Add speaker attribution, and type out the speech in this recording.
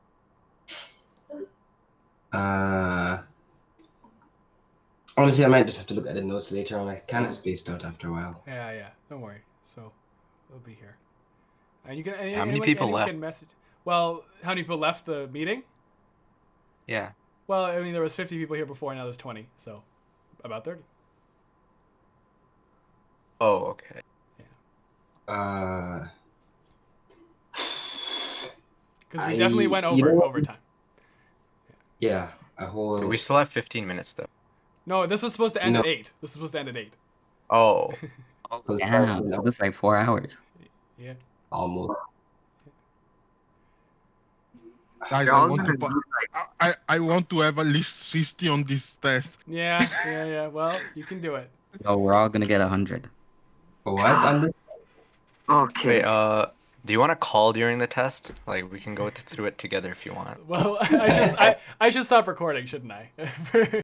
Speaker 1: Uh, Honestly, I might just have to look at the notes later on. I kind of spaced out after a while.
Speaker 2: Yeah, yeah. Don't worry. So we'll be here. And you can. Any,
Speaker 3: How many
Speaker 2: anyone-
Speaker 3: people
Speaker 2: anyone
Speaker 3: left?
Speaker 2: Can message. Well, how many people left the meeting?
Speaker 3: Yeah.
Speaker 2: Well, I mean, there was 50 people here before, and now there's 20, so about 30.
Speaker 3: Oh, okay.
Speaker 1: Uh,
Speaker 2: Because we
Speaker 1: I-
Speaker 2: definitely went
Speaker 1: you
Speaker 2: over
Speaker 1: know what?
Speaker 2: overtime.
Speaker 1: yeah, a whole.
Speaker 3: We still have 15 minutes though.
Speaker 2: No, this was supposed to end
Speaker 1: No.
Speaker 2: at eight. This was supposed to end at eight.
Speaker 3: Oh,
Speaker 4: Oh,
Speaker 1: Those
Speaker 4: damn.
Speaker 1: buttons,
Speaker 4: So
Speaker 1: no.
Speaker 4: it's like four hours.
Speaker 2: Yeah.
Speaker 1: almost.
Speaker 5: Guys, I want, to, pa- I, I- I want to have at least 60 on this test.
Speaker 2: Yeah, yeah, yeah. Well, you can do it.
Speaker 4: So we're all gonna get a hundred.
Speaker 1: What? On the...
Speaker 3: wait.
Speaker 6: Okay.
Speaker 3: Uh, do you want to call during the test? Like we can go t- through it together if you want.
Speaker 2: Well, I just I, I should stop recording, shouldn't I?